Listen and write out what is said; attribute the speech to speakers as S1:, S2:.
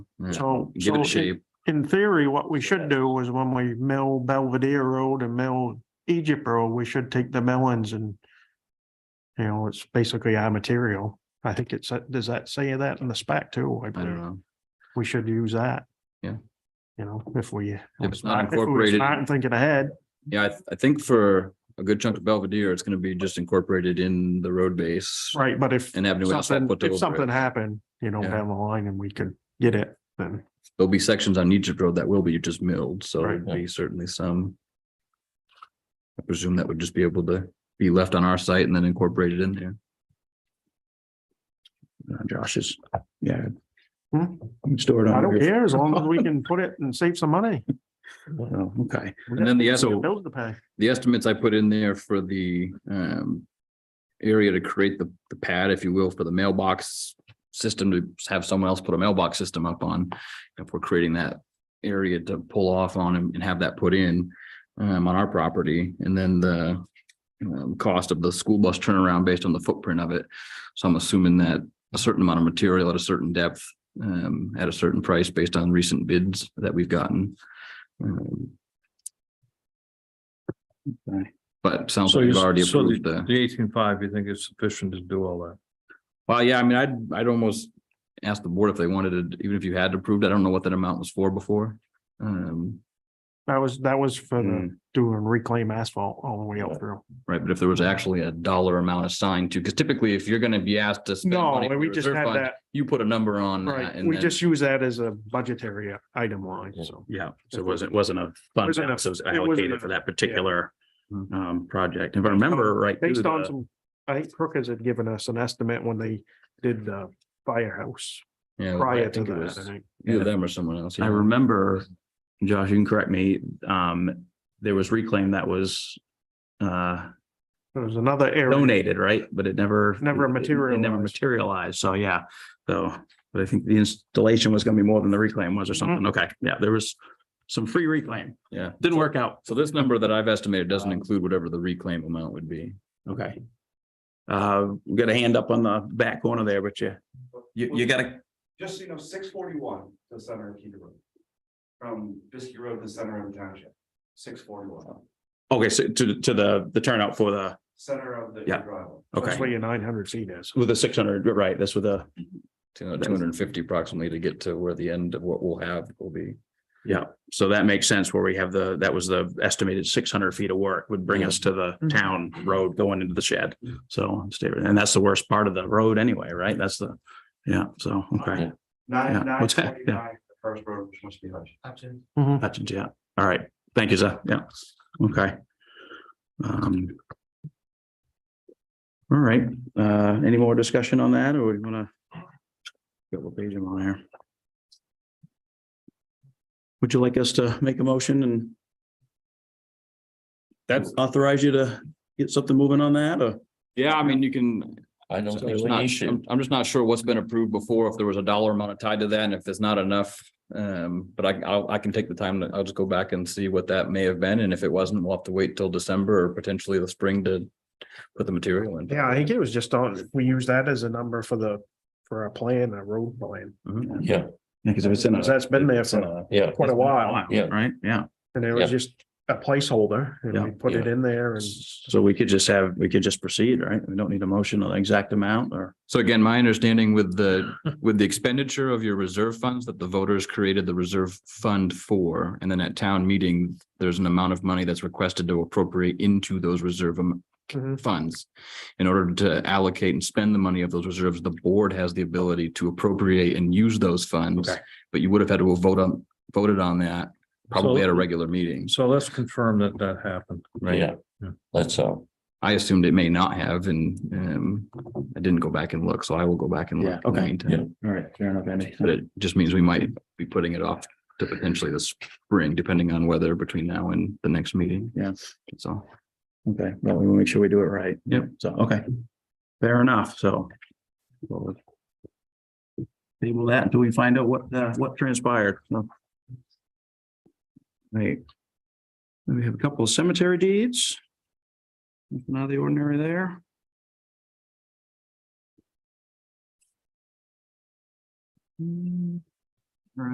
S1: Yeah.
S2: So.
S1: Give it
S2: so
S1: a
S2: in-
S1: shape.
S2: In theory, what we should do was when we mill Belvedere Road and mill Egypt Road, we should take the melons and. You know, it's basically our material. I think it's, does that say that in the spec too?
S1: I don't know.
S2: We should use that.
S1: Yeah.
S2: You know, if we.
S1: If it's not
S2: if we were
S1: incorporated-
S2: smart and Thinking ahead,
S1: Yeah, I, th- I think for a good chunk of Belvedere, it's gonna be just incorporated in the road base
S2: right, but if
S1: and have new asphalt
S2: something,
S1: put
S2: if
S1: over
S2: something
S1: it.
S2: happened, you know,
S1: Yeah.
S2: down the line and we could get it, then.
S1: There'll be sections on Egypt Road that will be just milled, so
S2: Right.
S1: there'd be certainly some. I presume that would just be able to be left on our site and then incorporated in there.
S3: Uh, Josh is, yeah.
S2: Hmm?
S3: Store it
S2: I
S3: on
S2: don't
S3: here.
S2: care as long as we can put it and save some money.
S3: Oh, Okay,
S1: And then the,
S2: So
S1: so
S2: bills to pay.
S1: the estimates I put in there for the um. Area to create the the pad, if you will, for the mailbox system to have someone else put a mailbox system up on. If we're creating that area to pull off on and and have that put in um on our property and then the. Um, cost of the school bus turnaround based on the footprint of it. So I'm assuming that a certain amount of material at a certain depth. Um, at a certain price based on recent bids that we've gotten. Um, But it sounds
S4: So
S1: like
S4: you,
S1: we've already
S4: so
S1: approved
S4: the,
S1: the,
S4: the eighteen five, you think is sufficient to do all that?
S1: well, yeah, I mean, I'd, I'd almost ask the board if they wanted to, even if you had approved, I don't know what that amount was for before. Um,
S2: That was, that was for the
S1: right,
S2: doing reclaim asphalt all the way up through.
S1: Hmm. but if there was actually a dollar amount assigned to, because typically if you're gonna be asked to spend
S2: No,
S1: money from
S2: we
S1: the
S2: just
S1: reserve
S2: had
S1: fund,
S2: that,
S1: You put a number on that
S2: right,
S1: and
S2: we
S1: then,
S2: just use that as a budgetary item line, so.
S3: yeah, so it wasn't, wasn't a fund,
S2: Wasn't a-
S3: balance, it was
S2: wasn't
S3: allocated
S2: a- Mm-hmm.
S3: for that particular
S1: Hmm.
S3: um, project. If I remember right. through
S2: Based on
S3: the-
S2: some, I think Crookers had given us an estimate when they did the firehouse
S1: yeah, Oh, I
S2: prior to
S1: think it
S2: that, I
S1: was
S2: think.
S1: either them or someone else.
S3: I
S1: yeah.
S3: remember, Josh, you can correct me, um, there was reclaim that was uh,
S2: There was another area,
S3: donated, right? But it never.
S2: Never
S3: it- it Never
S2: materialized.
S3: materialized, so yeah, so, but I think the installation was gonna be more than the reclaim was or
S2: Mm-hmm.
S3: something, okay, yeah, there was some free reclaim,
S1: Yeah.
S3: didn't work out,
S1: So this number that I've estimated doesn't include whatever the reclaim amount would be.
S3: okay. Uh, we got a hand up on the back corner there, but you, you, you gotta,
S5: just so you know, six forty-one to the center of Peter Road. From Biscuit Road to the center of the township, six forty-one,
S3: okay, so to, to the, the turnout for the,
S5: center of the
S3: Yeah.
S5: driveway.
S2: that's
S3: okay,
S2: where your nine hundred feet is.
S3: with the six hundred, right, that's with the,
S1: Two hundred and fifty approximately to get to where the end of what we'll have will be.
S3: yeah. So that makes sense where we have the, that was the estimated six hundred feet of work would bring us to the town road going into the shed. So, stay- and that's the worst part of the road anyway, right? That's the, yeah, so, okay. Yeah,
S5: Nine, nine
S3: what's that? Yeah.
S5: forty-nine, the first road, which must be Hutch.
S2: Mm-hmm.
S3: Hutchins, yeah. All right. Thank you, sir. Yeah. Okay. Um. All right. Uh, any more discussion on that or we wanna? Got what page am I on here? Would you like us to make a motion and?
S1: That's-
S3: Authorize you to get something moving on that or?
S1: Yeah, I mean, you can,
S4: I
S1: So there's not- I'm I'm just not sure what's been approved before, if there was a dollar amount tied to that, and if there's not enough. Um, but I, I'll, I can take the time, to- I'll just go back and see what that may have been, and if it wasn't, we'll have to wait till December or potentially the spring to put the material in.
S2: Yeah, I think it was just on, we use that as a number for the, for our plan, our road plan,
S1: Mm-hmm.
S4: Yeah,
S3: Because if it's in a.
S2: because that's been there
S3: it's in
S2: for
S3: a-
S4: yeah.
S2: quite a while.
S4: Yeah.
S3: Right? Yeah.
S2: And it was
S4: Yeah.
S2: just a placeholder and
S3: Yeah,
S2: we put it in there and.
S3: So we could just have, we could just proceed, right? We don't need a motion on the exact amount or?
S1: So again, my understanding with the, with the expenditure of your reserve funds that the voters created the reserve fund for, and then at town meeting, there's an amount of money that's requested to appropriate into those reserve am-
S2: Mhm.
S1: funds. In order to allocate and spend the money of those reserves, the board has the ability to appropriate and use those funds.
S3: Okay.
S1: But you would have had to vote on, voted on that probably at a regular meeting,
S4: So let's confirm that that happened.
S1: right?
S4: That's so.
S1: I assumed it may not have and um I didn't go back and look, so I will go back and look.
S3: Yeah,
S1: in the
S3: okay.
S1: meantime.
S3: All right, fair enough, Andy.
S1: But it just means we might be putting it off to potentially the spring, depending on weather between now and the next meeting.
S3: Yeah.
S1: So.
S3: Okay, well, we want to make sure we do it right.
S1: Yep.
S3: So, okay. Fair enough, so. we'll Table that until we find out what, uh, what transpired. So. Right. Then We have a couple of cemetery deeds. Nothing out of the ordinary there. Hmm.